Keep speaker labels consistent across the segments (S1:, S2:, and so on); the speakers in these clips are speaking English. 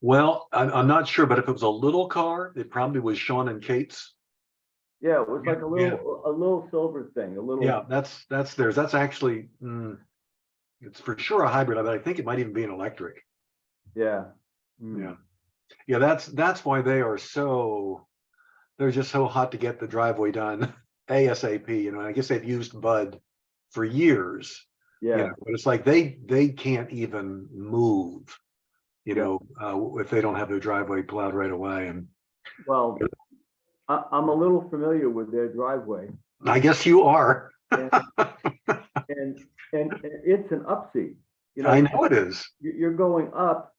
S1: Well, I'm, I'm not sure, but if it was a little car, it probably was Sean and Kate's.
S2: Yeah, it was like a
S1: Yeah.
S2: little, a little silver thing, a little.
S1: Yeah, that's, that's theirs. That's actually, mm, it's for sure a hybrid, but I think it might even be an electric.
S2: Yeah. Mm.
S1: Yeah. Yeah, that's, that's why they are so, they're just so hot to get the driveway done ASAP, you know, and I guess they've used Bud for years. you
S2: Yeah,
S1: know, But it's like they, they can't even move, you
S2: Yeah.
S1: know, uh, if they don't have their driveway plowed right away. And
S2: well, I, I'm a little familiar with their driveway.
S1: I guess you are.
S2: And, and, and it's an upseat. You
S1: I
S2: know,
S1: know it is.
S2: you- you're going up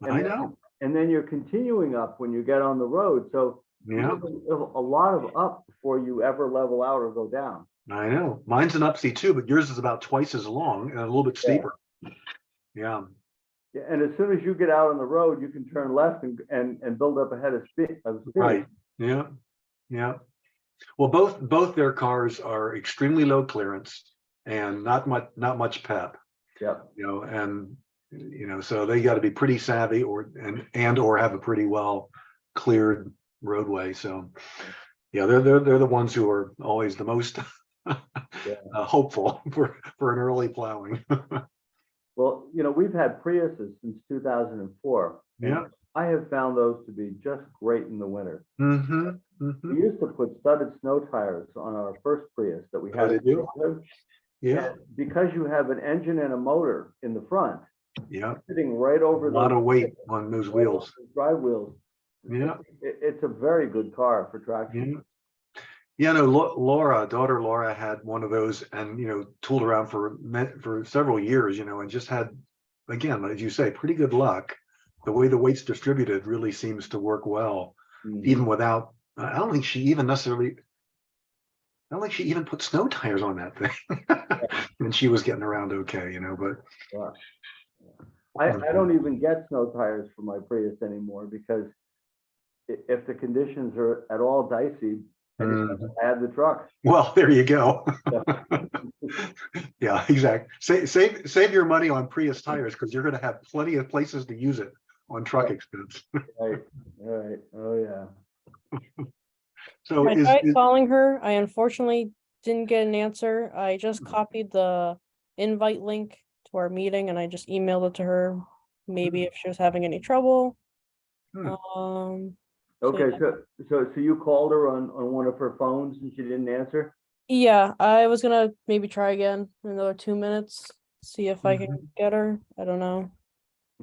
S2: And
S1: I
S2: then-
S1: know.
S2: and then you're continuing up when you get on the road. So
S1: Yeah,
S2: there's a a lot of up before you ever level out or go down.
S1: I know. Mine's an upseat too, but yours is about twice as long and a little bit
S2: Yeah.
S1: steeper. Yeah,
S2: Yeah, And as soon as you get out on the road, you can turn left and, and, and build up ahead of speed. Of speed.
S1: Right. yeah, yeah. Well, both, both their cars are extremely low clearance and not much, not much pep,
S2: Yep.
S1: you know, and, you know, so they got to be pretty savvy or, and, and or have a pretty well cleared roadway. So, yeah, they're, they're, they're the ones who are always the most uh, hopeful for, for an early plowing.
S2: Well, you know, we've had Priuses since two thousand and four.
S1: Yeah.
S2: I have found those to be just great in the winter.
S1: hmm hmm
S2: We used to put studded snow tires on our first Prius that we
S1: Oh,
S2: had.
S1: did
S2: in
S1: you?
S2: Portland.
S1: Yeah.
S2: And Because you have an engine and a motor in the front,
S1: Yeah,
S2: sitting right
S1: a
S2: over.
S1: lot
S2: those-
S1: of weight on those
S2: right over
S1: wheels.
S2: those Drive wheels.
S1: Yeah,
S2: It, it's a very good car for traction.
S1: yeah. Yeah, no, Lau- Laura, daughter Laura had one of those and, you know, tooled around for me- for several years, you know, and just had, again, as you say, pretty good luck. The way the weight's distributed really seems to work well,
S2: Mm.
S1: even without, uh, I don't think she even necessarily, I don't think she even put snow tires on that thing. And she was getting around okay, you know, but
S2: I, I don't even get snow tires for my Prius anymore because i- if the conditions are at all dicey, I just
S1: Mhm.
S2: add the truck.
S1: well, there you go. Yeah, exactly. Save, save, save your money on Prius tires because you're gonna have plenty of places to use it on truck expense.
S2: Right, right, oh, yeah.
S1: So
S3: I
S1: is,
S3: tried
S1: is-
S3: calling her. I unfortunately didn't get an answer. I just
S1: Mm-hmm.
S3: copied the invite link to our meeting and I just emailed it to her. Maybe if she was having any trouble.
S1: Mm-hmm. Hmm.
S3: Um, So,
S2: Okay,
S3: yeah.
S2: so, so, so you called her on, on one of her phones and she didn't answer?
S3: yeah, I was gonna maybe try again in another two minutes, see if I can
S1: Mm-hmm.
S3: get her. I don't know.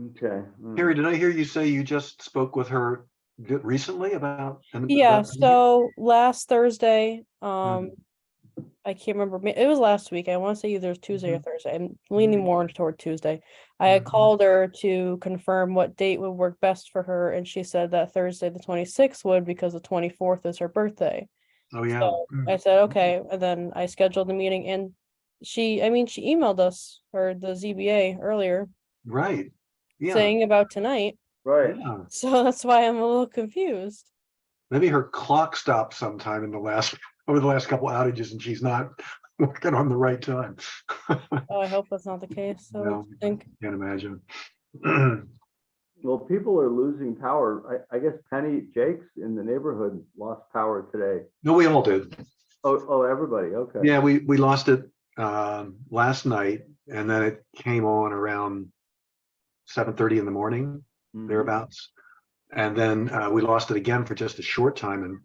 S2: Okay. mm.
S1: Harry, did I hear you say you just spoke with her di- recently about? an-
S3: Yeah,
S1: about-
S3: so last Thursday,
S1: Mm-hmm.
S3: um, I can't remember, ma- it was last week, I want to say either it was Tuesday
S1: Mm-hmm.
S3: or Thursday, I'm leaning
S1: Mhm.
S3: more toward Tuesday. I had
S1: Mhm.
S3: called her to confirm what date would work best for her, and she said that Thursday, the twenty-sixth would, because the twenty-fourth is her birthday.
S1: Oh, yeah.
S3: so
S1: Mm.
S3: I said, okay, and then I scheduled the meeting, and she, I mean, she emailed us, or the ZBA earlier,
S1: Right. Yeah.
S3: saying about tonight,
S2: Right,
S1: yeah.
S3: so that's why I'm a little confused.
S1: Maybe her clock stopped sometime in the last, over the last couple outages and she's not working on the right time.
S3: Oh, I hope that's not the case,
S1: No.
S3: so I think.
S1: Can't imagine.
S2: well, people are losing power. I, I guess Penny Jakes in the neighborhood lost power today.
S1: No, we all did.
S2: Oh, oh, everybody, okay.
S1: Yeah, we, we lost it um, last night and then it came on around seven thirty in the morning
S2: Mhm.
S1: thereabouts. And then uh, we lost it again for just a short time and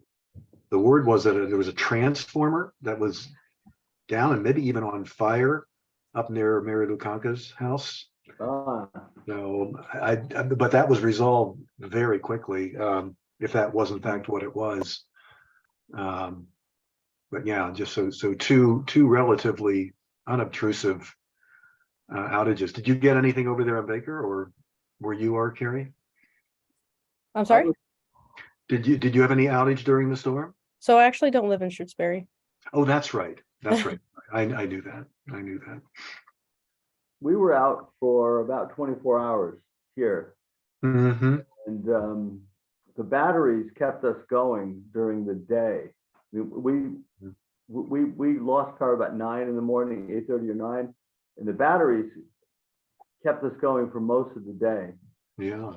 S1: the word was that there was a transformer that was down and maybe even on fire up near Mary Lukanka's house.
S2: Ah,
S1: So I, I- but that was resolved very quickly, um, if that was in fact what it was. Um, But yeah, just so, so two, two relatively unobtrusive uh, outages. Did you get anything over there on Baker or where you are, Carrie?
S3: I'm sorry.
S1: Did you, did you have any outage during the storm?
S3: So I actually don't live in Shrewsbury.
S1: Oh, that's right. That's right. I, I knew that. I knew that.
S2: we were out for about twenty-four hours here.
S1: Mm-hmm.
S2: And um, the batteries kept us going during the day. We, we, we, we lost power about nine in the morning, eight thirty or nine, and the batteries kept us going for most of the day.
S1: Yeah.